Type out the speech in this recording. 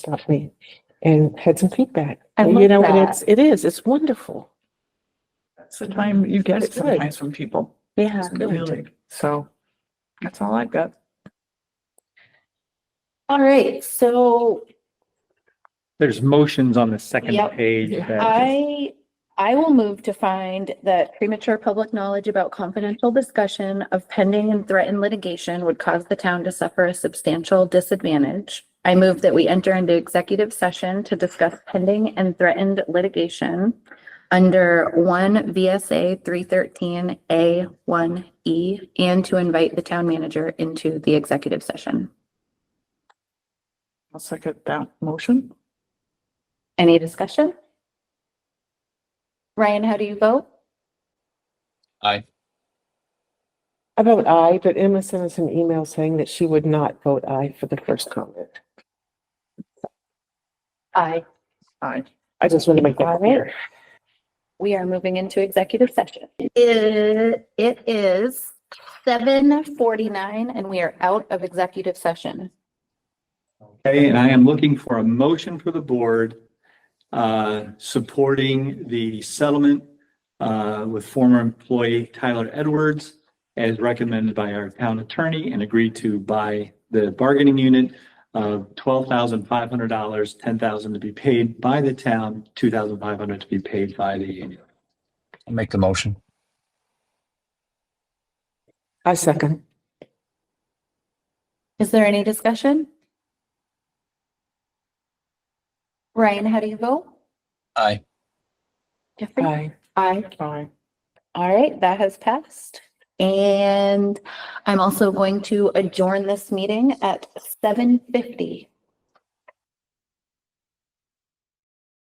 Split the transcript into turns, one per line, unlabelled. about me and had some feedback.
I
And,
love
you know, and
that.
it's it is it's wonderful.
That's the time you get
That's good.
sometimes from people.
Yeah,
It's really-
so
That's all I've got.
All right, so
There's motions on the second
Yep.
page. that-
I, I will move to find that premature public knowledge about confidential discussion of pending and threatened litigation would cause the town to suffer a substantial disadvantage. I move that we enter into executive session to discuss pending and threatened litigation under one VSA three thirteen A one E and to invite the town manager into the executive session.
I'll second that motion.
Any discussion? Ryan, how do you vote?
Aye.
I vote aye, but Emma sent us an email saying that she would not vote aye for the first comment.
Aye.
Aye.
I just want to make that
All right.
clear.
We are moving into executive session. It, it is seven forty-nine and we are out of executive session.
Okay, and I am looking for a motion for the board uh, supporting the settlement uh, with former employee Tyler Edwards as recommended by our town attorney and agreed to by the bargaining unit of twelve thousand five hundred dollars, ten thousand to be paid by the town, two thousand five hundred to be paid by the union.
I'll make the motion.
I second.
Is there any discussion? Ryan, how do you vote?
Aye.
Jeffrey?
Aye.
Aye.
Aye.
All right, that has passed. And I'm also going to adjourn this meeting at seven fifty.